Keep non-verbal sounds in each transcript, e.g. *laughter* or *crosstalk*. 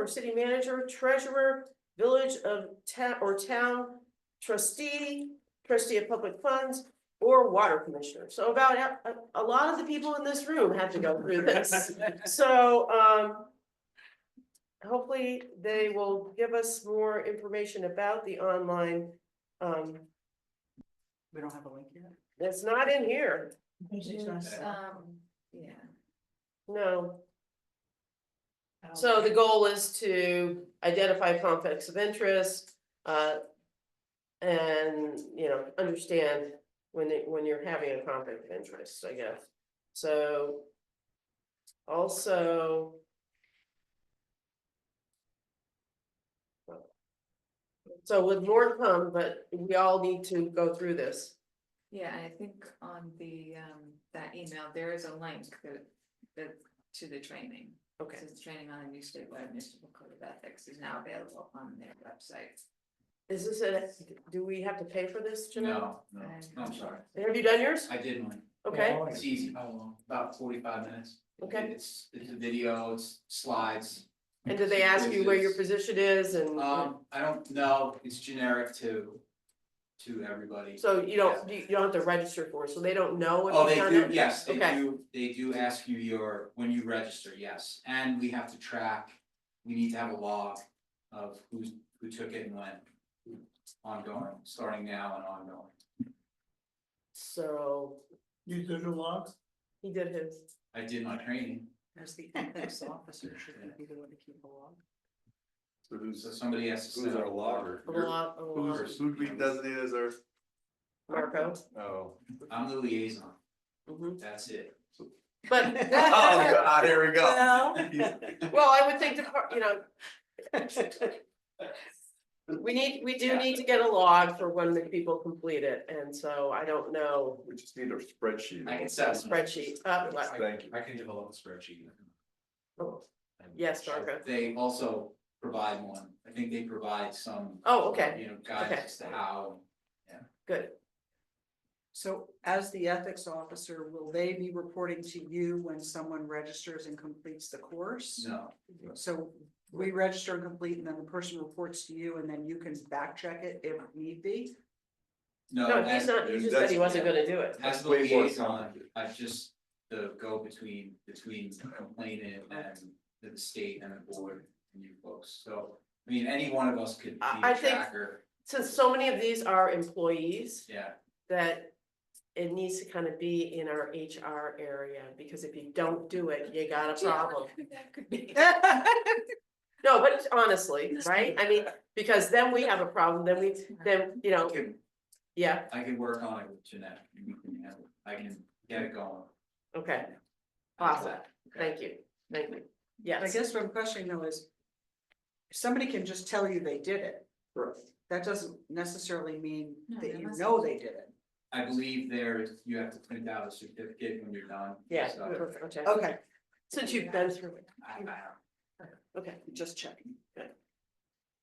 from city manager, treasurer, village of town or town trustee, trustee of public funds, or water commissioner. So about a, a- a lot of the people in this room had to go through *laughs* this. So, um, hopefully they will give us more information about the online, um, We don't have a link yet. it's not in here, It's not- um, yeah. no. So the goal is to identify conflicts of interest, uh. And, you know, understand when it, when you're having a conflict of interest, I guess, so. Also. So with more to come, but we all need to go through this, Yeah, and I think on the, um, that email, there is a link that, that, to the training. okay, This is training on the new statewide municipal code of ethics is now available on their website. is this a, do we have to pay for this, Janelle? No, no, Oh, I'm sorry, Have you done yours? I did one, Okay, it's easy, about forty-five minutes. Okay. It's, it's a video, it's slides. and did they ask you where your quizzes. position is and? Um, I don't know, it's generic to, to everybody. So you don't, you you don't have to register for, it, so they don't know Oh, if they you've done do, it? yes, they Okay. do, they do ask you your, when you register, yes, and we have to track, we need to have a log of who's, who took it and when. Ongoing, starting now and ongoing. So You did a lot. he did his, I did my training, As the ethics officer, should we be the one to keep a log? So who's, so somebody has to. who's set our up. logger? a lot, a lot, Who's, who'd we designate as our, Marco. oh. I'm the liaison, Mhm. that's it. *laughs* But, *laughs* Oh, God, here we go. well, I would think, the par- you *laughs* know, we need, we do need to get a log for when the people complete it, and so I don't know. We just need our spreadsheet. I can set. some- Spreadsheet, uh, what- Thank you. I can develop a spreadsheet. yes, Marco, They also provide one, I think they provide some, oh, okay, you know, guidance as to how. good, So as the ethics officer, will they be reporting to you when someone registers and completes the course? No, So we register and complete and then the person reports to you and then you can back check it if need be? no. no, as- he's not, he just said he wasn't gonna do it, As the Way more liaison, complicated. I just, the go between, between the complainant and the state and the board and you folks, so. I mean, any one of us could be I- I a think- tracker, since so many of these are employees. yeah, that it needs to kind of be in our HR area, because if you don't do it, you got a problem. *laughs* That could be. No, but honestly, right? I mean, because then we have a problem, then we, then, you I know, could, yeah, I could work on it with Jeanette, and we can have- I can get it going. okay, awesome, thank you, thank you, I yes. guess what I'm questioning though is. if Somebody can just tell you they did it. That doesn't necessarily mean No, that they you must- know they did it. I believe there, is- you have to print out a certificate when you're done. Yeah, so perfect, okay, Okay, since you've been through it, I- I okay, just checking.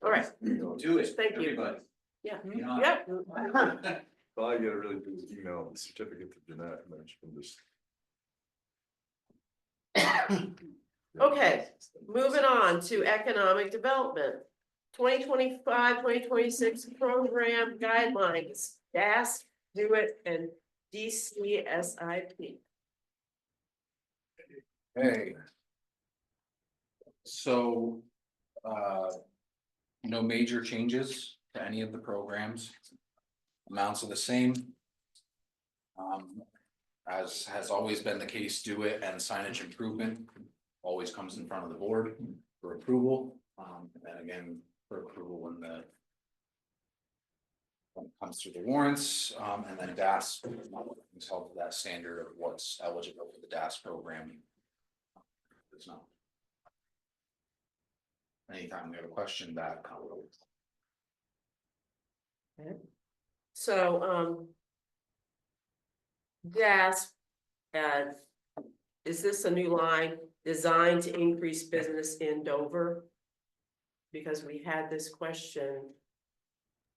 all right, don't- Do it, Thank you. Mm-hmm. everybody. Yeah. Hmm? Be Uh, on it. yeah, *laughs* All you gotta really do is email the certificate to Jeanette and then she can just. Okay, moving on to economic development. 2025-2026 program guidelines, DAS, do it, and DCSIP. Hey. So, uh, no major changes to any of the programs. Amounts are the same. Um, as has always been the case, do it and signage improvement always comes in front of the board for approval. Um, and then again, for approval when the when it comes through the warrants, um, and then DAS, is held to that standard of what's eligible for the DAS program. It's not. Anytime we have a question that. So, um. DAS, uh, is this a new line designed to increase business in Dover? Because we had this question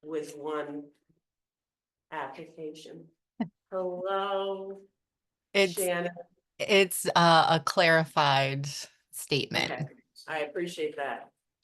with one application. Hello, It's, Shannon, it's uh, a clarified statement. Okay. I appreciate that.